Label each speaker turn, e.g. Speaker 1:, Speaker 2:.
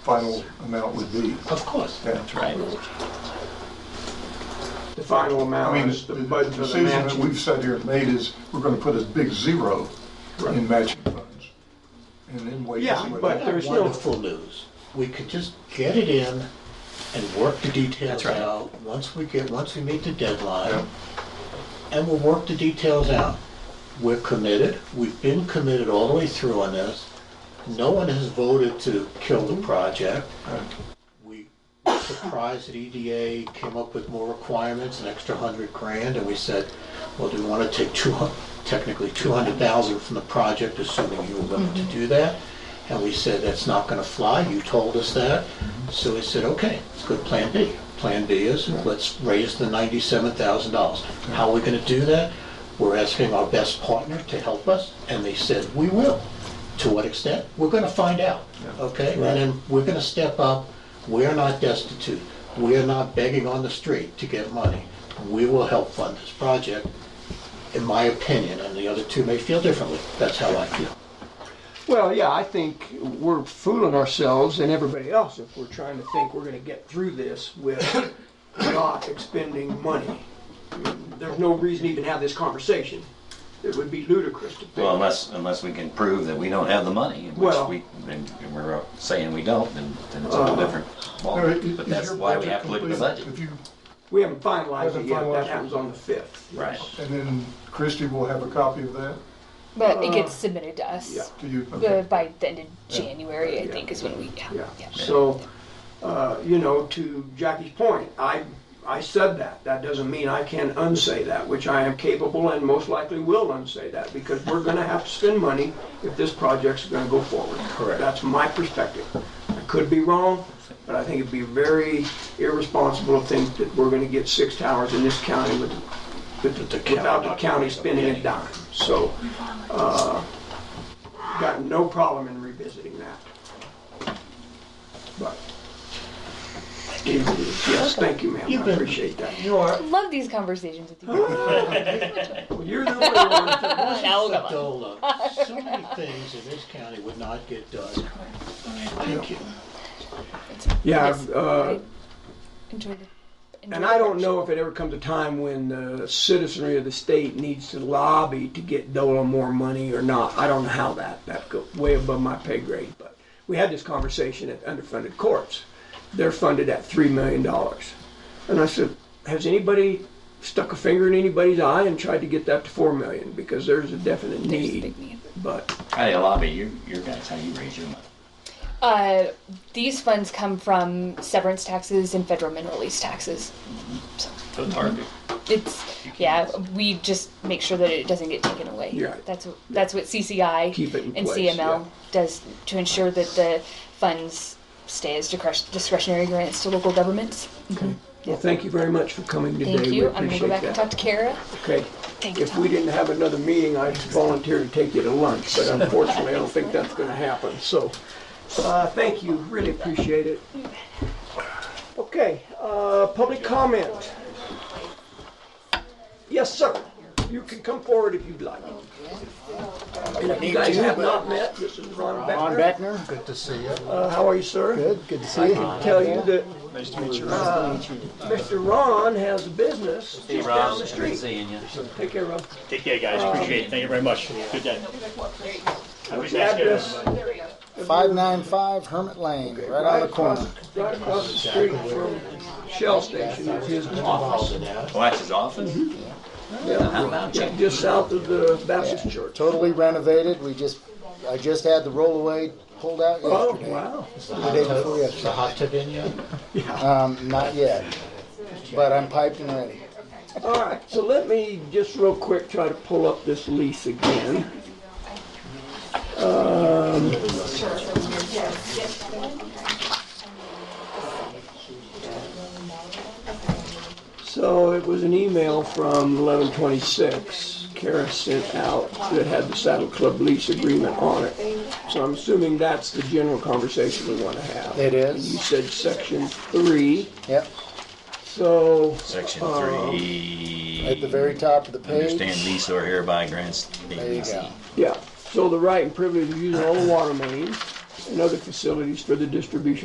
Speaker 1: final amount would be.
Speaker 2: Of course.
Speaker 1: Yeah.
Speaker 3: Right.
Speaker 4: The final
Speaker 1: I
Speaker 4: amount
Speaker 1: mean,
Speaker 4: is
Speaker 1: the
Speaker 4: the budget of the
Speaker 1: decision that
Speaker 4: matching.
Speaker 1: we've sat here and made is, we're gonna put a big zero in matching funds. And then wait. to
Speaker 4: Yeah,
Speaker 1: see what
Speaker 4: but
Speaker 1: happens.
Speaker 4: there's no-
Speaker 2: Wonderful news. We could just get it in and work the details
Speaker 3: That's right.
Speaker 2: out. Once we get, once we meet the
Speaker 1: Yeah.
Speaker 2: deadline, and we'll work the details out. We're committed, we've been committed all the way through on this. No one has voted to kill the project. We were surprised that EDA came up with more requirements, an extra hundred grand, and we said, well, do we want to take two, hun- technically two hundred thousand from the project, assuming you were willing to do that? And we said, that's not gonna fly, you told us that. So we said, okay, let's go to Plan B. Plan B is, let's raise the ninety-seven thousand dollars. How are we gonna do that? We're asking our best partner to help us, and they said, we will. To what extent? We're gonna find out, okay? And then we're gonna step up. We're not destitute. We're not begging on the street to get money. We will help fund this project, in my opinion, and the other two may feel differently. That's how I feel.
Speaker 4: Well, yeah, I think we're fooling ourselves and everybody else if we're trying to think we're gonna get through this with not expending money. I mean, There's no reason to even have this conversation. It would be ludicrous to think.
Speaker 3: Well, unless, unless we can prove that we don't have the money, in which
Speaker 4: Well-
Speaker 3: we, and and we're saying we don't, then, then it's a whole different
Speaker 1: Now, i-
Speaker 3: ballgame.
Speaker 1: Uh, is
Speaker 3: But that's
Speaker 1: your
Speaker 3: why we
Speaker 1: budget
Speaker 3: have to look at the
Speaker 1: complete?
Speaker 3: budget.
Speaker 1: If you,
Speaker 4: We haven't finalized it
Speaker 1: Haven't
Speaker 4: yet.
Speaker 1: finalized
Speaker 4: That
Speaker 1: it.
Speaker 4: happens on the fifth.
Speaker 3: Right.
Speaker 1: and then Christie will have a copy of that,
Speaker 5: But it gets submitted to
Speaker 4: Uh, yeah.
Speaker 5: us
Speaker 1: do you?
Speaker 5: uh,
Speaker 1: Okay.
Speaker 5: by the end of January, I
Speaker 4: Yeah.
Speaker 5: think, is when we, yeah.
Speaker 4: Yeah,
Speaker 5: yeah.
Speaker 4: so, uh, you know, to Jackie's point, I, I said that. That doesn't mean I can unsay that, which I am capable and most likely will unsay that, because we're gonna have to spend money if this project's gonna go forward.
Speaker 2: Correct.
Speaker 4: That's my perspective. I could be wrong, but I think it'd be very irresponsible to think that we're gonna get six towers in this county with, with,
Speaker 2: the county
Speaker 4: without the
Speaker 2: not-
Speaker 4: county spending a dime. So, uh, got no problem in revisiting that. But, yes, thank you, ma'am, I appreciate that.
Speaker 2: You are,
Speaker 5: Love these conversations with
Speaker 4: Ah.
Speaker 5: you.
Speaker 4: Well, You're the only one.
Speaker 5: Now, come on.
Speaker 2: Dola, uh, so many things in this county would not get done. Thank you.
Speaker 4: Yeah,
Speaker 5: Yes.
Speaker 4: uh,
Speaker 5: Right. Enjoy the. enjoy
Speaker 4: and
Speaker 5: the
Speaker 4: I don't
Speaker 5: workshop.
Speaker 4: know if it ever comes a time when the citizenry of the state needs to lobby to get DOLA more money or not. I don't know how that, that goes way above my pay grade, but we had this conversation at underfunded courts. They're funded at three million dollars. And I said, has anybody stuck a finger in anybody's eye and tried to get that to four million? Because there's a definite
Speaker 5: There's a
Speaker 4: need,
Speaker 5: big need.
Speaker 4: but.
Speaker 3: How do you lobby your, your guys, how you raise your money?
Speaker 5: Uh, these funds come from severance taxes and federal mineral lease taxes. So
Speaker 3: So it's hard to-
Speaker 5: it's yeah, we just make sure that it doesn't get taken away.
Speaker 4: Yeah.
Speaker 5: That's what that's what CCI
Speaker 4: Keep it in
Speaker 5: and
Speaker 4: place,
Speaker 5: CML
Speaker 4: yeah.
Speaker 5: does to ensure that the funds stay as discretion- discretionary grants to local governments.
Speaker 4: Well, thank you very much for coming today.
Speaker 5: Thank
Speaker 4: We
Speaker 5: you. I'm gonna
Speaker 4: appreciate
Speaker 5: go back and talk
Speaker 4: that.
Speaker 5: to Kara.
Speaker 4: Okay.
Speaker 5: Thank you,
Speaker 4: If we
Speaker 5: Tom.
Speaker 4: didn't have another meeting, I'd volunteer to take you to lunch, but unfortunately, I don't think that's going to happen, so. uh, Thank you, really appreciate it. Okay, uh, public comment. Yes, sir. You can come forward if you'd like. And if you guys have not met, this is Ron
Speaker 6: Ron
Speaker 4: Becker.
Speaker 6: Beckner, good to see you.
Speaker 4: Uh, How are you, sir?
Speaker 6: Good, good to see you.
Speaker 4: tell you that. uh, Mr. Ron has a business just down the street.
Speaker 3: Seeing you.
Speaker 4: Take care of it.
Speaker 7: Take care, guys. Appreciate it. Thank you very much. Good day. Have a
Speaker 4: What's
Speaker 7: good
Speaker 4: the address?
Speaker 7: day.
Speaker 6: Five nine five Hermit Lane, right on the corner.
Speaker 4: across- Right across the street from Shell Station is his office.
Speaker 3: Well, that's his office?
Speaker 1: Mm-hmm.
Speaker 3: How about
Speaker 4: Yeah,
Speaker 3: you?
Speaker 4: Just south of the Baptist Church.
Speaker 6: Totally renovated. We just, I just had the rollaway pulled out
Speaker 4: Oh,
Speaker 6: yesterday.
Speaker 4: wow.
Speaker 6: The day before
Speaker 2: Is the
Speaker 6: yesterday.
Speaker 2: hot tub in yet?
Speaker 6: Um, not yet, but I'm piped and ready.
Speaker 4: All right, so let me just real quick try to pull up this lease again. Um, So it was an email from 1126 Kara sent out that had the Saddle Club lease agreement on it. So I'm assuming that's the general conversation we want to have.
Speaker 6: It
Speaker 4: You
Speaker 6: is.
Speaker 4: said section three,
Speaker 6: Yep,
Speaker 4: so.
Speaker 3: Section
Speaker 4: uh,
Speaker 3: three.
Speaker 6: at the very top of the page.
Speaker 3: Understand lease or hereby grants the
Speaker 6: There you
Speaker 3: lease.
Speaker 6: go.
Speaker 4: Yeah, so the right and privilege of using all the water mains and other facilities for the distribution